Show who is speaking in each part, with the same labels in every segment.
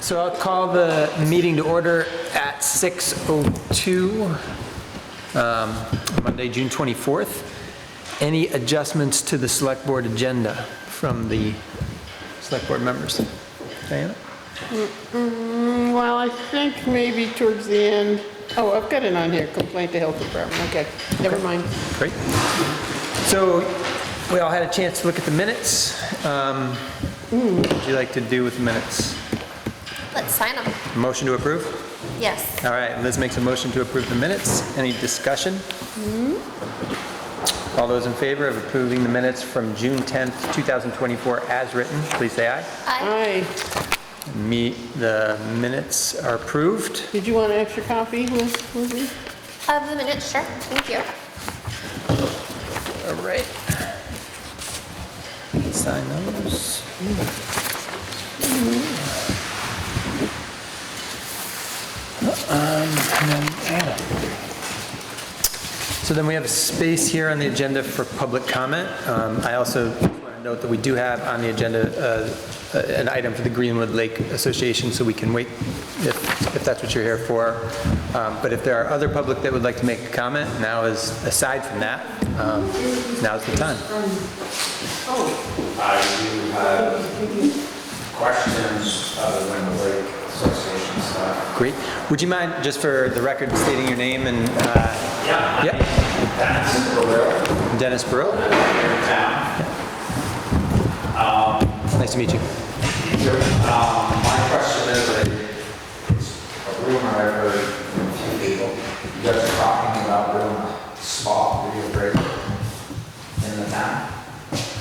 Speaker 1: So I'll call the meeting to order at 6:02, um, Monday, June 24th. Any adjustments to the select board agenda from the select board members? Diana?
Speaker 2: Well, I think maybe towards the end, oh, I've got it on here, complaint to health department, okay, never mind.
Speaker 1: Great. So we all had a chance to look at the minutes. Um, What would you like to do with the minutes?
Speaker 3: Let's sign them.
Speaker 1: Motion to approve?
Speaker 3: Yes.
Speaker 1: All right, Liz makes a motion to approve the minutes. Any discussion? All those in favor of approving the minutes from June 10th, 2024 as written, please say aye.
Speaker 3: I,
Speaker 2: Aye,
Speaker 1: Me, the minutes are approved.
Speaker 2: did you want an extra copy, Liz? Lizzie?
Speaker 3: of the minutes, sure, thank you.
Speaker 1: All right. Sign those. Um, and then Anna. So then we have space here on the agenda for public comment. Um, I also want to note that we do have on the agenda uh, an item for the Greenwood Lake Association, so we can wait if if that's what you're here for. Um, But if there are other public that would like to make a comment, now is, aside from that, um, now's the time.
Speaker 4: I do have questions other than the Lake Association stuff.
Speaker 1: Great. Would you mind, just for the record, stating your name and, uh,
Speaker 4: Yeah.
Speaker 1: yep,
Speaker 4: That's Barrera,
Speaker 1: Dennis Burrow?
Speaker 4: here in town.
Speaker 1: Nice to meet you.
Speaker 4: Um, My question is, I- it's a rumor I've heard from a few people, you guys are talking about doing a spot reappraisal in the town,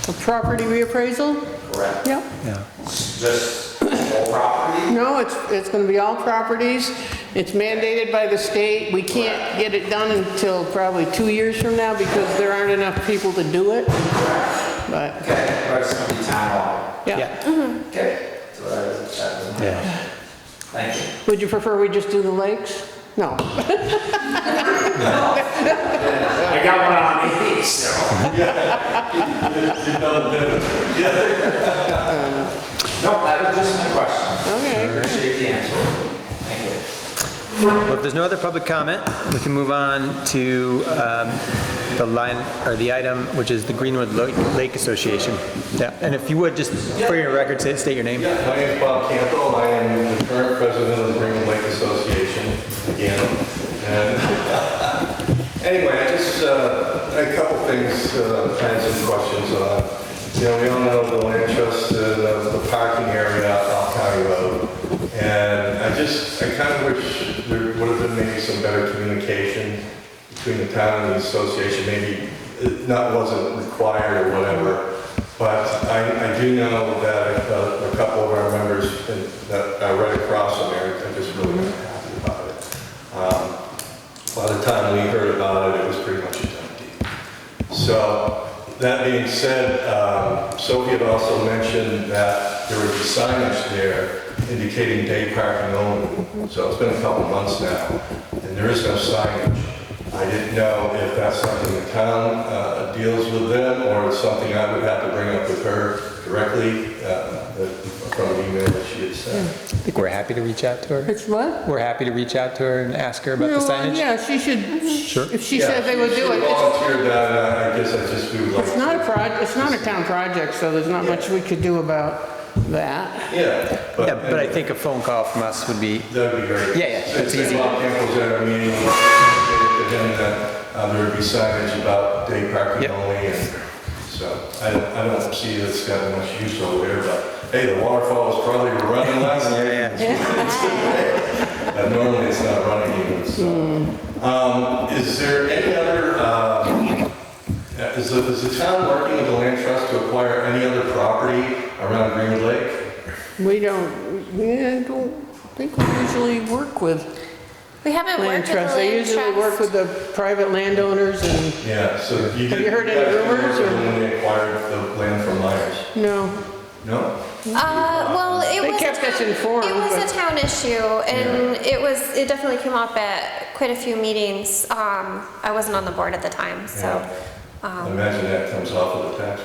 Speaker 2: A property reappraisal?
Speaker 4: correct?
Speaker 2: Yep.
Speaker 1: Yeah.
Speaker 4: Just whole property?
Speaker 2: No, it's, it's gonna be all properties, it's mandated by the state, we can't get it done until probably two years from now because there aren't enough people to do it, but,
Speaker 4: Okay, but it's gonna be town hall.
Speaker 2: yeah.
Speaker 4: Okay, so that is, that is my
Speaker 1: Yeah.
Speaker 4: question. Thank you.
Speaker 2: Would you prefer we just do the lakes? No.
Speaker 4: I got one on me, so. No, that was just my question.
Speaker 2: Okay.
Speaker 4: Appreciate the answer. Thank you.
Speaker 1: Well, if there's no other public comment, we can move on to um, the line, or the item, which is the Greenwood Lo- Lake Association. Yeah, and if you would, just for your record, say- state your name.
Speaker 5: Yeah, my name is Bob Campbell, I am the current president of the Green Lake Association, again. And- Anyway, I just, uh, a couple things, uh, kind of some questions on. You know, we all know the land trust, uh, the the parking area on County Road. And I just, I kind of wish there would have been maybe some better communication between the town and the association, maybe it not wasn't required or whatever. But I, I do know that uh, a couple of our members in- that are right across from there, they're just really not happy about it. Um, By the time we heard about it, it was pretty much a done deal. So, that being said, um, Sophie had also mentioned that there would be signage there indicating day parking only. So it's been a couple months now, and there is no signage. I didn't know if that's something the town uh, deals with them, or it's something I would have to bring up with her directly uh, from an email that she had sent.
Speaker 1: I think we're happy to reach out to her.
Speaker 2: It's what?
Speaker 1: We're happy to reach out to her and ask her about the
Speaker 2: No, uh,
Speaker 1: signage.
Speaker 2: Yeah, she should,
Speaker 1: Sure.
Speaker 2: if she said they would do
Speaker 5: She
Speaker 2: it. it's-
Speaker 5: volunteered that, and I guess I just do like...
Speaker 2: It's not a proj, it's not a town project, so there's not much we could do about that.
Speaker 5: Yeah, but...
Speaker 1: Yeah, but I think a phone call from us would be,
Speaker 5: That'd be great.
Speaker 1: Yeah, yeah, that's easy.
Speaker 5: Since Bob Campbell's at our meeting, we indicated to him that uh, there would be signage about day parking
Speaker 1: Yep.
Speaker 5: only, and so I don't, I don't see that's got much use over there, but hey, the waterfall is probably running last
Speaker 1: Yeah,
Speaker 5: night. Uh, Normally, it's not running even,
Speaker 1: Hmm.
Speaker 5: so. Um, Is there any other, um, uh, is the, is the town working with the land trust to acquire any other property around Greenwood Lake?
Speaker 2: We don't, yeah, I don't think we usually work with
Speaker 3: We haven't
Speaker 2: land
Speaker 3: worked with the
Speaker 2: trusts. They
Speaker 3: land
Speaker 2: usually work with
Speaker 3: trust.
Speaker 2: the private landowners and,
Speaker 5: Yeah, so you
Speaker 2: Have
Speaker 5: did.
Speaker 2: you heard any
Speaker 5: guys didn't
Speaker 2: rumors,
Speaker 5: work
Speaker 2: or-
Speaker 5: When they acquired the land from Myers?
Speaker 2: no.
Speaker 5: No?
Speaker 3: Uh, well, it
Speaker 2: They
Speaker 3: was. a
Speaker 2: kept us
Speaker 3: town-
Speaker 2: informed,
Speaker 3: It was
Speaker 2: but-
Speaker 3: a town issue and it was, it definitely came up at quite a few meetings. Um, I wasn't on the board at the time, so.
Speaker 5: Yeah. Imagine that comes off of the tax